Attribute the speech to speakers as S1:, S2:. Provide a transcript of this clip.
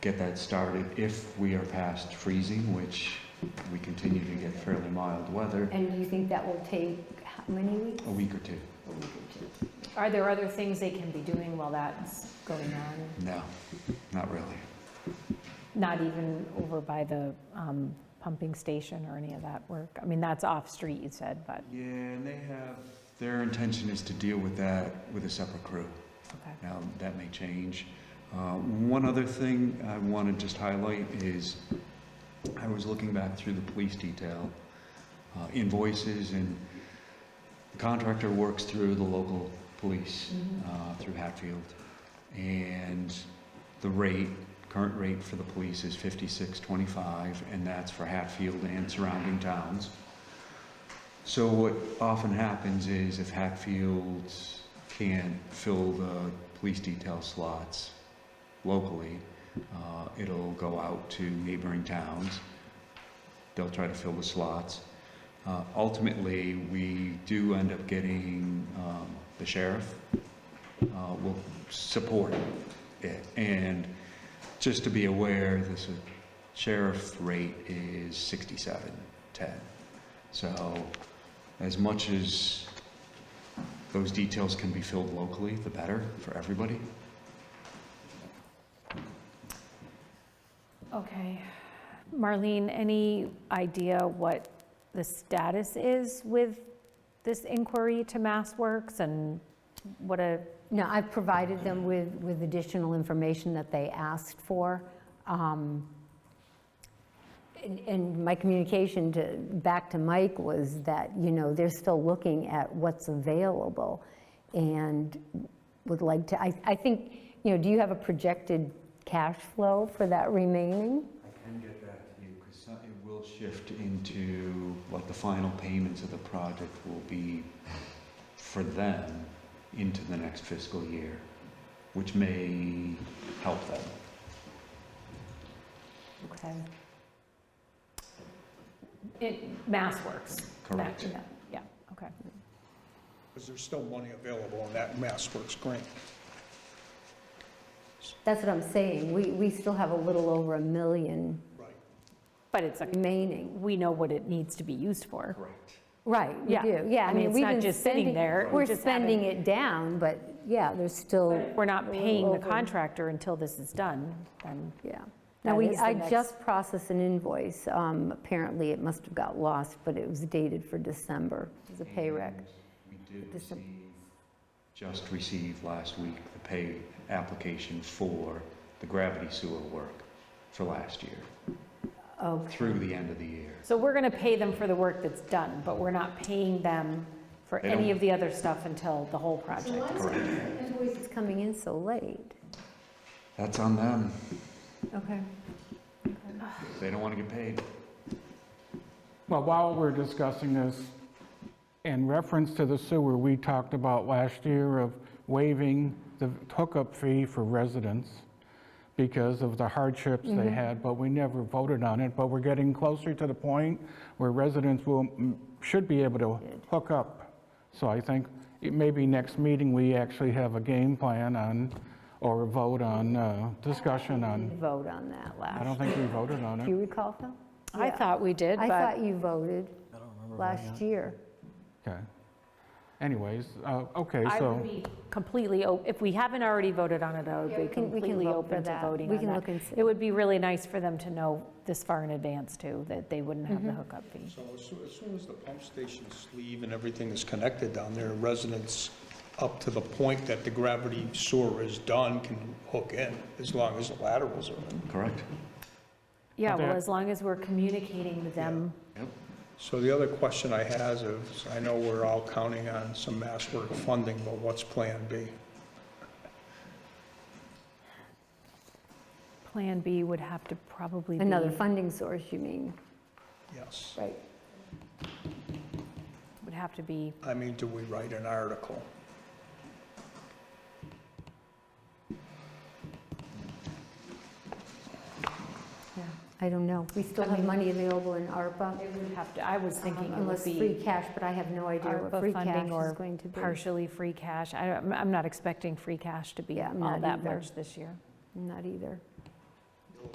S1: get that started if we are past freezing, which we continue to get fairly mild weather,
S2: And you think that will take how many weeks?
S1: a week or two.
S2: A week or two.
S3: Are there other things they can be doing while that's going on?
S1: No, not really.
S3: Not even over by the um, pumping station or any of that work? I mean, that's off-street, you said, but,
S1: Yeah, and they have, their intention is to deal with that with a separate crew.
S3: okay.
S1: Now, that may change. Uh, One other thing I want to just highlight is, I was looking back through the police detail uh, invoices, and the contractor works through the local police, uh, through Hatfield, and the rate, current rate for the police is fifty-six twenty-five, and that's for Hatfield and surrounding towns. So what often happens is if Hatfield can't fill the police detail slots locally, uh, it'll go out to neighboring towns. They'll try to fill the slots. Uh, Ultimately, we do end up getting, um, the sheriff uh, will support it. And just to be aware, this is- sheriff rate is 6710. So as much as those details can be filled locally, the better for everybody.
S3: Okay. Marlene, any idea what the status is with this inquiry to MassWorks and what a,
S2: No, I've provided them with, with additional information that they asked for. Um, And and my communication to, back to Mike was that, you know, they're still looking at what's available and would like to, I, I think, you know, do you have a projected cash flow for that remaining?
S1: I can get back to you because it will shift into, like, the final payments of the project will be for them into the next fiscal year, which may help them.
S2: Okay.
S3: it- MassWorks. That-
S1: Correct.
S3: that- Yeah, okay.
S2: Mm-hmm.
S4: Because there's still money available in that Mass Works grant.
S2: That's what I'm saying. We, we still have a little over a million
S4: Right.
S3: But it's, a
S2: remaining.
S3: we know what it needs to be used for.
S1: Correct.
S2: Right, we
S3: Yeah.
S2: do, yeah.
S3: I mean, it's
S2: we've
S3: not
S2: been
S3: just sitting
S2: spending-
S3: there, we
S2: We're
S3: just
S2: spending it down, but yeah, there's still,
S3: We're not paying the
S2: Over.
S3: contractor until this is done, then.
S2: yeah. Now,
S3: That
S2: we,
S3: is the
S2: I
S3: next-
S2: just processed an invoice. Um, Apparently, it must have got lost, but it was dated for December. It was a pay rec.
S1: And We did
S2: This-
S1: receive, just received last week, the pay application for the gravity sewer work for last year,
S2: Okay.
S1: through the end of the year.
S3: So we're going to pay them for the work that's done, but we're not paying them for
S1: They
S3: any
S1: don't-
S3: of the other stuff until the whole project.
S1: Correct.
S2: Invoice is coming in so late.
S1: That's on them.
S2: Okay.
S1: If They don't want to get paid.
S5: Well, while we're discussing this, in reference to the sewer, we talked about last year of waiving the hookup fee for residents because of the hardships
S3: Mm-hmm.
S5: they had, but we never voted on it. But we're getting closer to the point where residents will, should be able to hook up. So I think it- maybe next meeting, we actually have a game plan on, or a vote on, uh, discussion
S2: You
S5: on.
S2: vote on that
S5: I
S2: last.
S5: don't think we voted on
S2: Do you
S5: it.
S2: recall, Phil?
S3: I
S2: Yeah.
S3: thought we did,
S2: I
S3: but
S2: thought you voted last year.
S5: Okay. Anyways, uh, okay,
S3: I
S5: so.
S3: would be completely, o- if we haven't already voted on it, I would
S2: Yeah,
S3: be
S2: we can- we can
S3: completely
S2: look for
S3: open to
S2: that.
S3: voting
S2: We
S3: on
S2: can
S3: that.
S2: look and see.
S3: It would be really nice for them to know this far in advance, too, that they wouldn't have the hookup fee.
S4: So as soon, as soon as the pump station sleeve and everything is connected down there, residents up to the point that the gravity sewer is done can hook in, as long as the laterals are in.
S1: Correct?
S3: Yeah,
S5: Okay.
S3: well, as long as we're communicating with them.
S1: Yep.
S4: So the other question I has is, I know we're all counting on some Mass Work funding, but what's Plan B?
S3: Plan B would have to probably be.
S2: Another funding source, you mean?
S4: Yes.
S2: Right.
S3: Would have to be,
S4: I mean, do we write an article?
S2: Yeah, I don't know. We still have money available in ARPA. Um,
S3: it would have to, I was thinking it would
S2: Unless
S3: be.
S2: free cash, but I have no idea
S3: ARPA
S2: what free cash
S3: funding
S2: is
S3: or
S2: going to be.
S3: partially free cash. I don't- I'm I'm not expecting free cash to be
S2: Yeah, I'm
S3: all
S2: not
S3: that
S2: either.
S3: much this year.
S2: Not either.